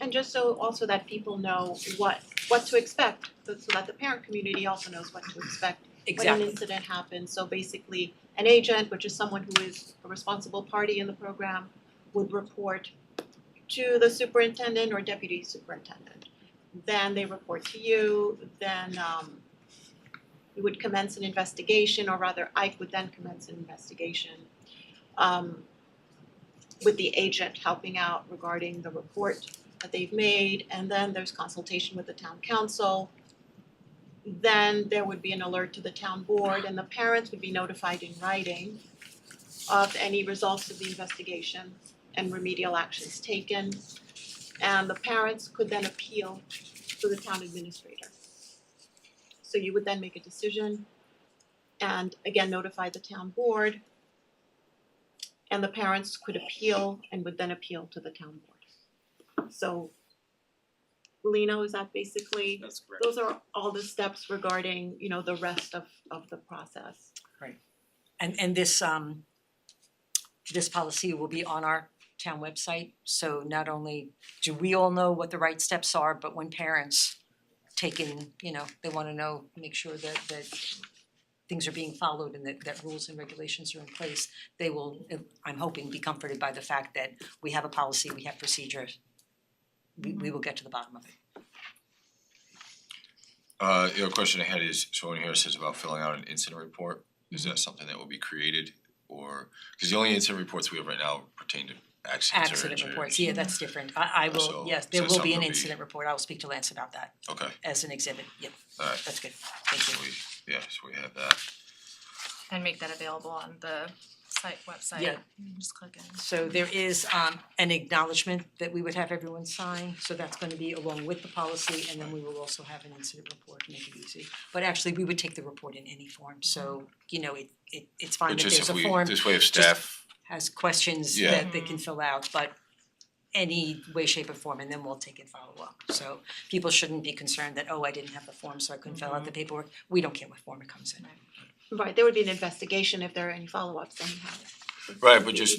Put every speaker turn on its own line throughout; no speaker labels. And just so also that people know what what to expect, so so that the parent community also knows what to expect when an
Exactly.
incident happens. So basically, an agent, which is someone who is a responsible party in the program, would report to the superintendent or deputy superintendent. Then they report to you, then um you would commence an investigation, or rather Ike would then commence an investigation um with the agent helping out regarding the report that they've made, and then there's consultation with the town council then there would be an alert to the town board and the parents would be notified in writing of any results of the investigation and remedial actions taken. And the parents could then appeal to the town administrator. So you would then make a decision and again notify the town board. And the parents could appeal and would then appeal to the town board. So Lino, is that basically
That's correct.
those are all the steps regarding, you know, the rest of of the process.
And and this um this policy will be on our town website, so not only do we all know what the right steps are, but when parents take in, you know, they wanna know, make sure that that things are being followed and that that rules and regulations are in place, they will, I'm hoping, be comforted by the fact that we have a policy, we have procedures. We we will get to the bottom of it.
Uh, your question ahead is, someone here says about filling out an incident report, is that something that will be created? Or, cause the only incident reports we have right now pertain to accidents or
Accident
injuries.
reports, yeah, that's different. I I will,
So-
yes, there
so
will be
something
an
will be-
incident report. I will speak to Lance about that.
Okay,
as an exhibit, yep,
alright,
that's good, thank
so
you.
we, yeah, so we have that.
and make that available on the site website.
Yeah.
You can Just click in.
So there is um an acknowledgement that we would have everyone sign, so that's gonna be along with the policy, and then we will also have an incident report, make it easy. But actually, we would take the report in any form, so, you know, it it it's fine
But
that
just
there's
if
a
we,
form,
this way if
just-
staff,
has questions
Yeah.
that they can fill out, but any way, shape or form, and then we'll take and follow up. So people shouldn't be concerned that, oh, I didn't have the form, so I couldn't fill out the paperwork, we don't care what form it comes in.
Right, there would be an investigation if there are any follow-ups anyhow.
right, but just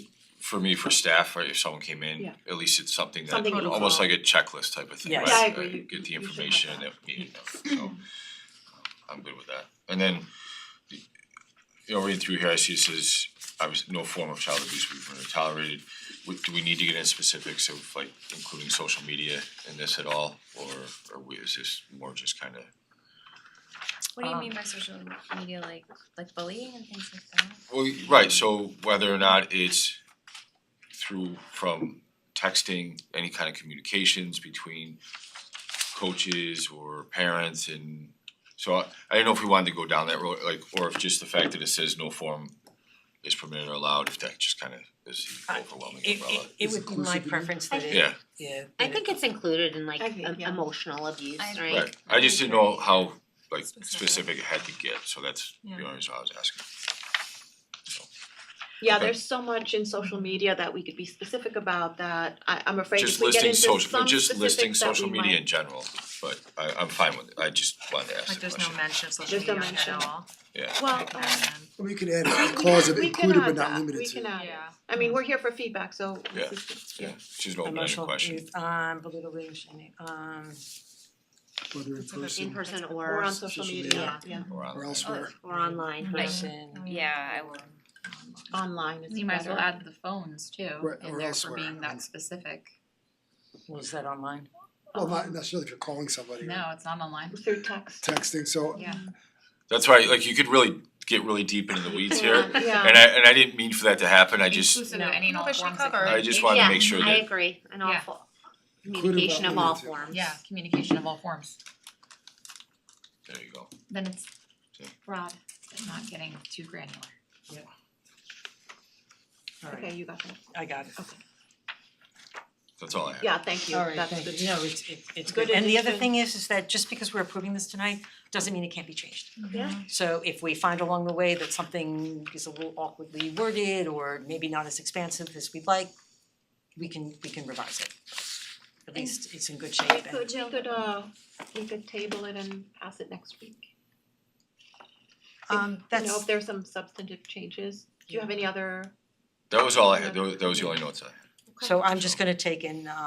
for me, for staff, right, if someone came in,
Yeah.
at least it's something that,
Something you
almost
follow.
like a checklist type of thing,
Yes.
right?
Yeah,
I agree.
Uh,
You-
Get the
you should have
information
that.
that we need, to know. so, um, I'm good with that. And then, you know, reading through here, I see it says, obviously, no form of child abuse will be permitted or tolerated. Would, do we need to get into specifics of like including social media in this at all, or or we, is this more just kinda,
What do you
Um,
mean by social media, like like bullying and things like that?
well, right, so whether or not it's through from texting, any kind of communications between coaches or parents and so I, I don't know if we wanted to go down that road, like, or if just the fact that it says no form is permitted or allowed, if that just kind of is the
Uh,
overwhelming
It
umbrella.
it it would be my
Inclusive.
preference that it,
Yeah.
yeah.
I
that it-
think it's included in like
I think,
em-
yeah.
emotional abuse,
I-
right?
Right, I just didn't know how like
Specific.
specific it had to get, so that's the only reason I was asking.
Yeah,
Okay.
there's so much in social media that we could be specific about that I I'm afraid if
Just
we get
listing
into
social,
some
just listing
specifics that
social
we
media in
might-
general, but I I'm fine with it, I just wanted to ask
Like
the
there's no
question,
mention of social
There's no
media at
mention.
all.
yeah.
Well,
Like,
um,
man.
We could add
we
a
can
clause
add-
of
we can
included
add
but not
that.
limited
We
to.
can add it.
Yeah.
I mean, we're here for feedback, so
Yeah.
this is-
Yeah, she's an open-ended
Emotional
question,
abuse, um, belittling, shaming, um,
Whether in
It's a good
person
In person
or
or
on social
social
media,
media.
yeah,
or on-
or elsewhere.
or online,
Right.
right?
person,
Yeah, I will.
online is
You might as well
better.
add the phones too,
Right,
in
or
there for
elsewhere,
being
um,
that specific.
was that online?
Well, not necessarily if you're calling somebody or
No, it's not online.
Through text.
texting, so
Yeah.
That's right, like you could really get really deep into the weeds here,
Yeah, yeah.
and I and I didn't mean for that to happen, I just,
Inclusive of any and all
But she
forms that
covered.
I just wanted to make sure
Yeah, I
that,
agree, an
Yeah.
awful
Included but
communication of all
limited to.
forms.
Yeah, communication of all forms.
there you go,
Then it's
Yeah.
broad, but not getting too granular.
Okay, you got that.
I got it.
that's all I have.
Yeah, thank you.
Alright,
That's
thank
good.
you, no, it's it's it's
Good
good, and the other
addition.
thing is, is that just because we're approving this tonight, doesn't mean it can't be changed.
Yeah.
So if we find along the way that something is a little awkwardly worded, or maybe not as expansive as we'd like, we can, we can revise it. At least it's in good shape
We
and.
could, we could, uh, we could table it and pass it next week.
Um,
You know,
that's,
if there's some substantive changes, do you have any other
That was all I had, Tho- that was the only notes I had.
so I'm just gonna take in, uh,